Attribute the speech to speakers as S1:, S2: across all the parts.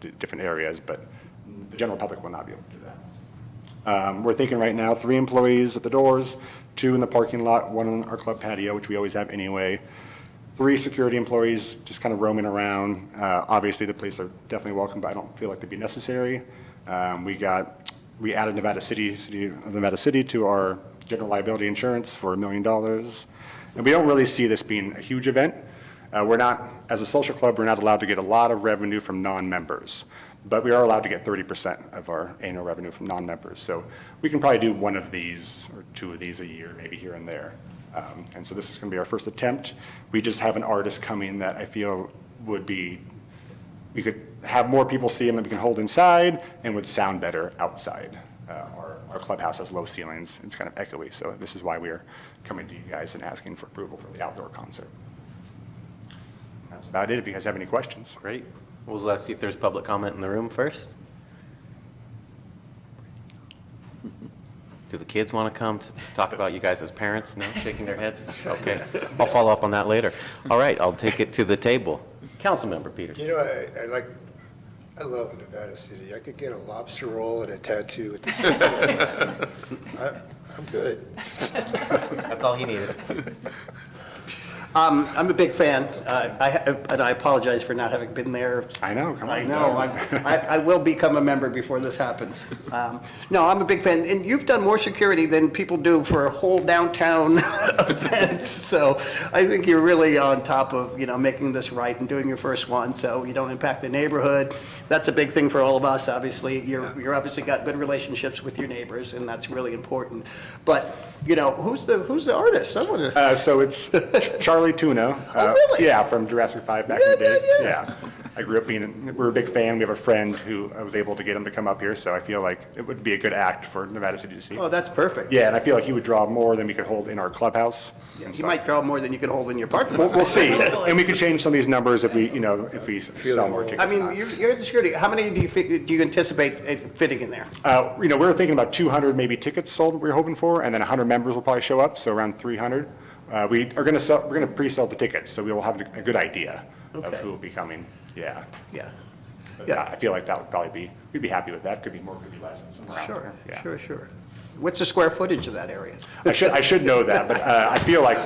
S1: d- different areas, but the general public will not be able to do that. Um, We're thinking right now, three employees at the doors, two in the parking lot, one on our club patio, which we always have anyway, three security employees just kind of roaming around. Uh, Obviously, the police are definitely welcome, but I don't feel like they'd be necessary. Um, We got, we added Nevada City, City of Nevada City to our general liability insurance for a million dollars. And we don't really see this being a huge event. Uh, We're not, as a social club, we're not allowed to get a lot of revenue from non-members, but we are allowed to get 30% of our annual revenue from non-members. So we can probably do one of these, or two of these a year, maybe here and there. Um, And so this is going to be our first attempt. We just have an artist coming that I feel would be, we could have more people see him that we can hold inside and would sound better outside. Uh, Our our clubhouse has low ceilings, it's kind of echoey, so this is why we're coming to you guys and asking for approval for the outdoor concert. That's about it, if you guys have any questions.
S2: Great. Well, let's see if there's public comment in the room first. Do the kids want to come to just talk about you guys as parents? No, shaking their heads? Okay, I'll follow up on that later. All right, I'll take it to the table. Councilmember Peters.
S3: You know, I, I like, I love Nevada City. I could get a lobster roll and a tattoo at the same place. I- I'm good.
S2: That's all he needed.
S4: Um, I'm a big fan, Uh, I ha- and I apologize for not having been there.
S1: I know, come on.
S4: I know, I'm- I I will become a member before this happens. Um, No, I'm a big fan, and you've done more security than people do for a whole downtown event, so I think you're really on top of, you know, making this right and doing your first one, so you don't impact the neighborhood. That's a big thing for all of us, obviously. You're you're obviously got good relationships with your neighbors, and that's really important. But, you know, who's the, who's the artist? I wanna-
S1: Uh, so it's Charlie Tuna. uh,
S4: Oh, really?
S1: Yeah, from Jurassic Five back in the
S4: Yeah,
S1: day.
S4: yeah, yeah.
S1: I grew up being, we're a big fan. We have a friend who I was able to get him to come up here, so I feel like it would be a good act for Nevada City to see.
S4: Oh, that's perfect.
S1: Yeah, and I feel like he would draw more than we could hold in our clubhouse. And
S4: You
S1: so-
S4: might draw more than you can hold in your parking
S1: We'll,
S4: lot.
S1: we'll see. And we could change some of these numbers if we, you know, if we sell more tickets.
S4: I mean, you're, you're the security, how many do you, fi- do you anticipate it fitting in there?
S1: Uh, you know, we were thinking about 200 maybe tickets sold we are hoping for, and then 100 members will probably show up, so around 300. Uh, we are going to sell, we're going to pre-sell the tickets, so we will have a good idea of
S4: Okay.
S1: who will be coming. Yeah.
S4: Yeah,
S1: But
S4: Yeah.
S1: I feel like that would probably be, we'd be happy with that. Could be more, could be less. somewhere around
S4: sure,
S1: there. Yeah.
S4: sure, sure. What's the square footage of that area?
S1: I should, I should know that, but uh, I feel like,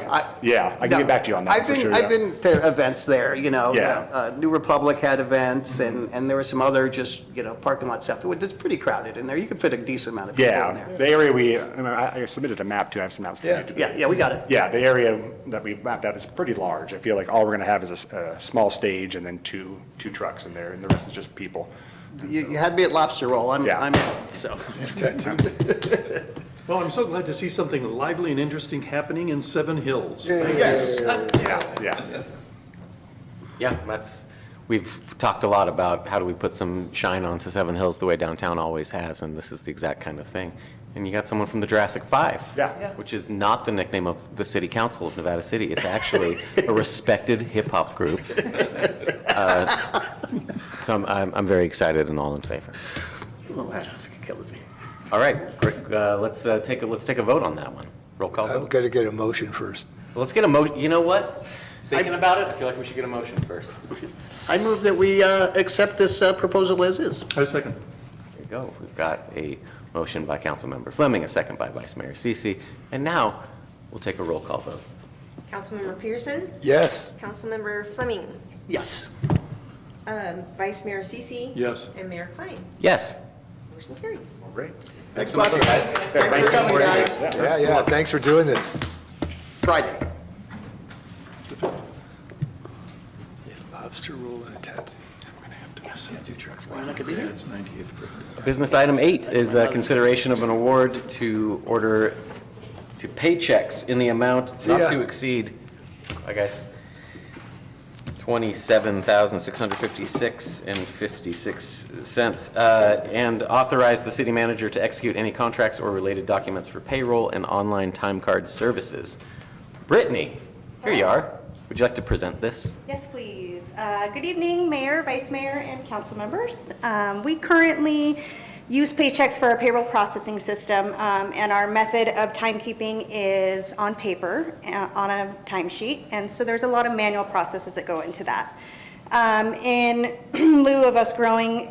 S1: yeah, I can
S4: No,
S1: get back to you on that
S4: I've
S1: for
S4: been,
S1: sure.
S4: I've
S1: yeah.
S4: been to events there, you know.
S1: Yeah.
S4: uh, New Republic had events, and, and there were some other just, you know, parking lot stuff. It's pretty crowded in there, you could fit a decent amount of people in
S1: Yeah,
S4: there.
S1: the area we, I mean, I I submitted a map too. I have some maps. for you
S3: Yeah.
S1: to-
S4: Yeah, yeah, we got it.
S1: Yeah, the area that we mapped out is pretty large. I feel like all we're going to have is a s- a, small stage and then two, two trucks in there, and the rest is just people.
S4: You, you had me at lobster roll, I'm,
S1: Yeah.
S4: I'm, so.
S5: Well, I'm so glad to see something lively and interesting happening in Seven Hills. Thank you.
S4: Yes.
S1: Yeah, yeah.
S2: Yeah, that's, we've talked a lot about how do we put some shine onto Seven Hills the way downtown always has, and this is the exact kind of thing. And you got someone from the Jurassic Five.
S1: Yeah. Yeah.
S2: Which is not the nickname of the city council of Nevada City. It's actually a respected hip-hop group. Uh, So I'm- I'm, I'm very excited and all in favor.
S4: Oh, I don't think it killed me.
S2: All right, great, uh, let's uh, take, a let's take a vote on that one. Roll call
S3: I've
S2: vote.
S3: got to get a motion first.
S2: Let's get a mo, you know what? Thinking about it, I feel like we should get a motion first.
S4: I move that we uh, accept this uh, proposal as is.
S5: I second.
S2: There you go. We've got a motion by Councilmember Fleming, a second by Vice Mayor Sisi, and now we'll take a roll call vote.
S6: Councilmember Pearson,
S3: Yes,
S6: Councilmember Fleming,
S4: Yes.
S6: um, Vice Mayor Sisi.
S5: Yes.
S6: And Mayor Klein.
S2: Yes.
S6: Motion carries.
S1: Great.
S4: Thanks so much, guys. Thanks for coming, guys.
S3: yeah, yeah, thanks for doing this.
S4: Friday.
S3: Lobster roll and a tattoo.
S2: Business item eight is uh, consideration of an award to order, to pay checks in the amount not to
S3: Yeah.
S2: exceed, I guess, twenty-seven thousand, six hundred fifty-six and fifty-six cents, uh, and authorize the city manager to execute any contracts or related documents for payroll and online time card services. Brittany, here you are. Would you like to present this?
S7: Yes, please. Uh, Good evening, Mayor, Vice Mayor, and council members. Um, We currently use paychecks for our payroll processing system, um, and our method of timekeeping is on paper, uh, on a timesheet, and so there's a lot of manual processes that go into that. um, in lieu of us growing